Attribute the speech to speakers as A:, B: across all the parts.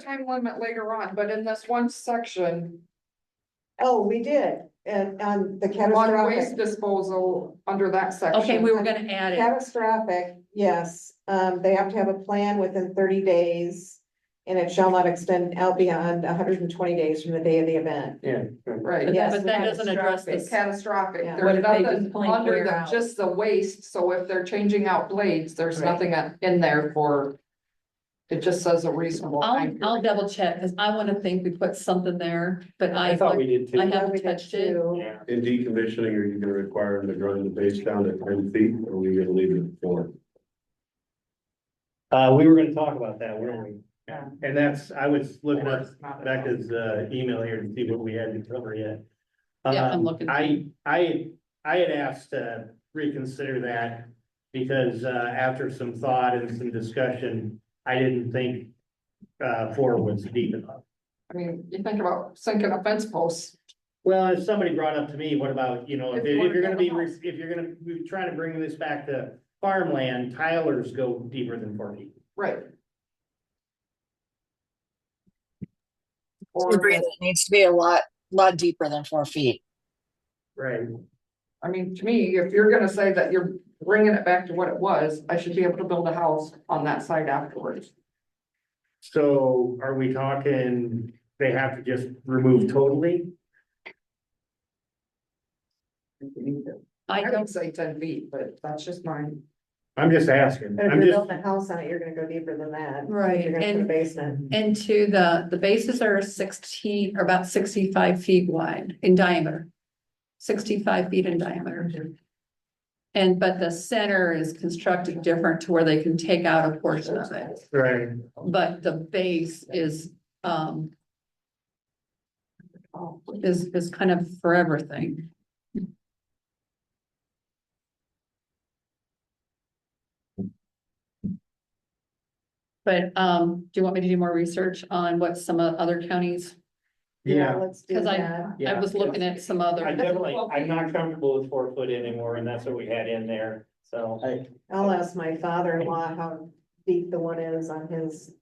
A: time limit later on, but in this one section,
B: Oh, we did, and on the
A: on waste
B: catastrophic,
A: disposal under that section.
C: Okay, we were gonna add it.
B: catastrophic, yes, um, they have to have a plan within thirty days. And it shall not extend out beyond hundred and twenty days from the day of the event.
D: Yeah.
C: But
A: Right,
C: that,
B: yes,
C: but
B: we
C: that
B: had
C: doesn't address
A: it's
C: this.
A: catastrophic,
B: Yeah.
C: What
A: there's
C: if they just
A: nothing
C: plain
A: under
C: clear
A: the,
C: out?
A: just the waste, so if they're changing out blades, there's
C: Right.
A: nothing in there for. It just says a reasonable
C: I'll,
A: time.
C: I'll
A: period.
C: double check, cause I wanna think we put something there, but I,
D: I thought we did
C: I
D: too.
C: haven't
B: We did
C: touched it.
B: too.
D: Yeah.
E: In decommissioning, are you gonna require them to grind the base down to ten feet, or are we gonna leave it at four?
D: Uh, we were gonna talk about that, weren't we?
A: Yeah.
D: And that's, I was looking
A: Or
D: at
A: it's not at all.
D: Becca's uh email here to see what we had to cover yet.
C: Yeah, I'm
D: Um,
C: looking.
D: I, I, I had asked to reconsider that because uh after some thought and some discussion, I didn't think uh four was deep enough.
A: I mean, you think about sinking a fence post,
D: Well, if somebody brought up to me, what about, you know, if
A: If
D: if
A: one
D: you're gonna be,
A: of the
D: re- if you're gonna, be trying to bring this back to farmland, Tyler's go deeper than forty.
A: right?
F: I
A: Or,
F: Agree, that it needs to be a lot, lot deeper than four feet.
D: Right.
A: I mean, to me, if you're gonna say that you're bringing it back to what it was, I should be able to build a house on that site afterwards.
D: So are we talking, they have to just remove totally?
C: I
A: I
C: don't,
A: don't say ten feet, but that's just mine.
D: I'm just asking,
B: But if
D: I'm
B: you're
D: just,
B: building a house on it, you're gonna go deeper than that.
C: Right,
B: You're gonna put a
C: and-
B: basement.
C: and to the, the bases are sixteen, or about sixty-five feet wide in diameter. Sixty-five feet in diameter. And, but the center is constructed different to where they can take out a portion of it,
D: right,
C: but the base is, um,
A: Oh,
C: is, is kind of for everything. But, um, do you want me to do more research on what some o- other counties,
D: yeah.
B: Let's do
C: cause
B: that.
C: I, I was looking at some other.
D: I definitely, I'm not comfortable with four foot anymore, and that's what we had in there, so.
B: I'll ask my father-in-law how deep the one is on his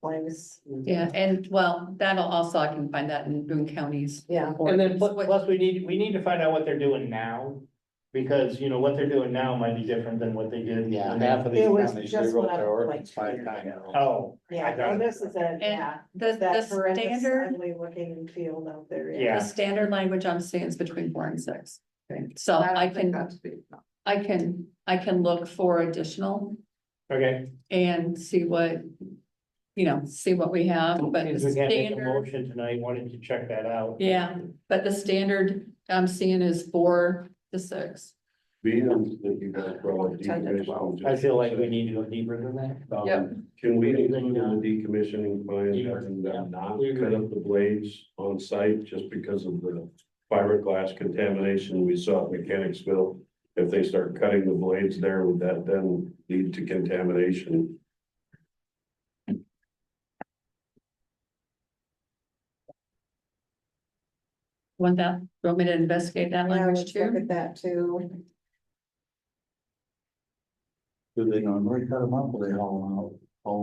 B: place.
C: Yeah, and well, that'll also, I can find that in Boone counties.
B: Yeah,
D: And then plus,
C: What-
D: plus we need, we need to find out what they're doing now, because, you know, what they're doing now might be different than what they did.
G: Yeah, half of these
B: It was
G: counties, they
B: just
G: wrote
B: what I
G: their ordinance
B: like to
G: five times.
D: Oh.
B: yeah, and this is a, yeah,
C: The, the
B: that horrendous
C: standard,
B: ugly looking field out there.
C: the
D: Yeah.
C: standard language I'm seeing is between four and six.
A: Okay.
C: So
A: don't
C: I
A: think
C: can,
A: that's big enough.
C: I can, I can look for additional
D: Okay,
C: and see what, you know, see what we have, but the
D: since we can't make a
C: standard,
D: motion tonight, why don't you check that out?
C: yeah, but the standard I'm seeing is four to six.
E: Being that you gotta throw a decommission.
D: I feel like we need to go deeper than that.
A: Yep.
E: Can we include in the decommissioning plan, having them not cut up the blades on site just because of the fiberglass contamination we saw at Mechanicsville? If they start cutting the blades there, would that then lead to contamination?
C: Want that, want me to investigate that
B: Yeah,
C: language
B: let's look
C: too?
B: at that too.
G: Do they normally cut them up or they haul them out?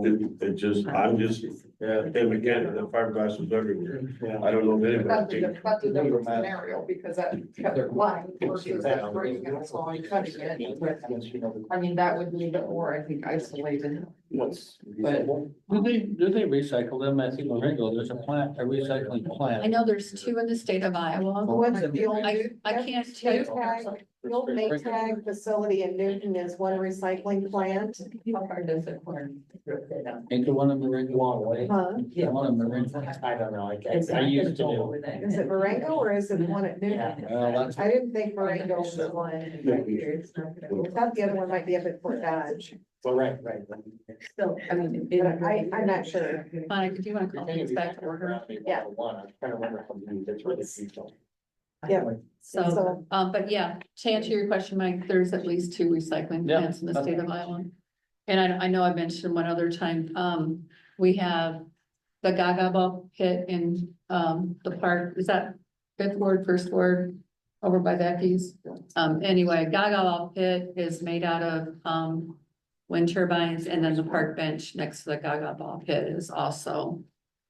E: It, it just, I'm just, yeah, and again, the fiberglass was everywhere. I don't know if
A: That's a,
E: anybody.
A: diff- that's a different scenario because that covered line versus that break and it's only cutting it. but, I mean, that would leave it more, I think, isolated.
G: What's?
A: but-
H: Do they, do they recycle them? I think Ringo, there's a plant, a recycling
C: I
H: plant.
C: know there's two in the state of Iowa.
B: What's
H: I-
B: the old,
C: I, I can't tell you.
B: Maytag, the old Maytag facility in Newton is one recycling plant,
A: How hard does it work?
H: Ain't the one in Marengo way?
B: huh?
H: The one in Marengo.
G: I don't know, I, I- I used to do.
B: Is it Marengo or is it the one at Newton?
H: Well, that's,
B: I didn't think Marengo was the one. I thought the other one might be up at Fort Dodge,
G: Well, right, right.
A: Still, I mean.
B: but I, I'm not sure.
C: Mike, do you want to call things back to order?
B: Yeah.
G: One, I was trying to remember how to do this, where it's regional.
C: So, um, but yeah, to answer your question, Mike, there's at least two recycling
H: Yeah.
C: plants in the state of Iowa. And I, I know I mentioned one other time, um, we have the Gaga pit in, um, the park, is that fifth ward, first ward? Over by Becky's, um, anyway, Gaga pit is made out of, um, wind turbines and then the park bench next to the Gaga pit is also